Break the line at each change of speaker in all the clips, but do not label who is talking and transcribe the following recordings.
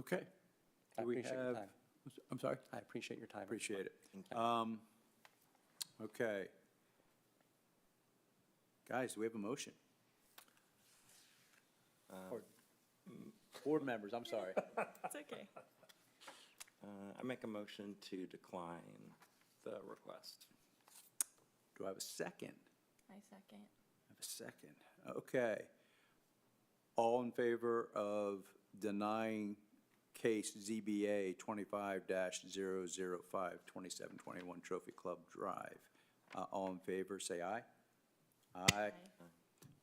Okay.
I
Do we
appreciate your
have-
time.
I'm sorry?
I appreciate your time.
Appreciate it. Um, Okay. Guys, do we have a motion?
Uh,
Or- Board members, I'm sorry.
It's okay.
Uh, I make a motion to decline the request.
Do I have a second?
I second.
I have a second. Okay. All in favor of denying case ZBA 25-005, 2721 Trophy Club Drive? Uh, All in favor, say aye. Aye.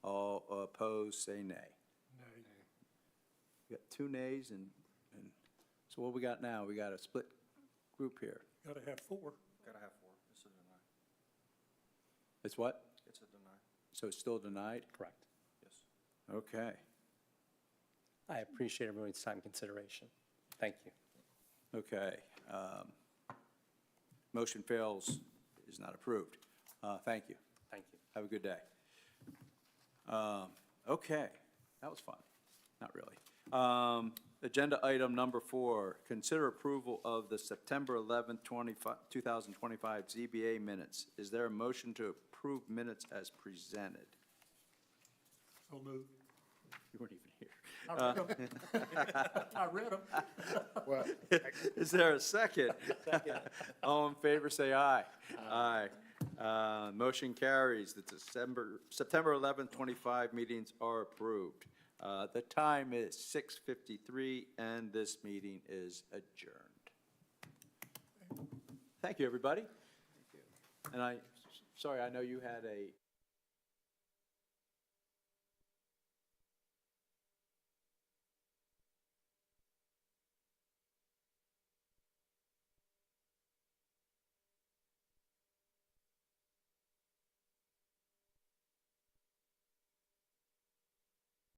All opposed, say nay. Nay. We got two nays and, and, so what we got now? We got a split group here.
Gotta have four.
Gotta have four. It's a deny.
It's what?
It's a deny.
So it's still denied?
Correct.
Yes.
Okay.
I appreciate everyone's time and consideration. Thank you.
Okay. um, Motion fails, is not approved. Uh, Thank you.
Thank you.
Have a good day. Um, Okay, that was fun. Not really. Um, Agenda item number four, consider approval of the September 11th, 25 2025 ZBA minutes. Is there a motion to approve minutes as presented?
So move.
You weren't even here.
I read 'em. I read them.
Uh, Is there a second? All in favor, say aye. Aye. Uh, Motion carries. The December, September 11th, 25 meetings are approved. Uh, The time is 6:53, and this meeting is adjourned. Thank you, everybody. And I, sorry, I know you had a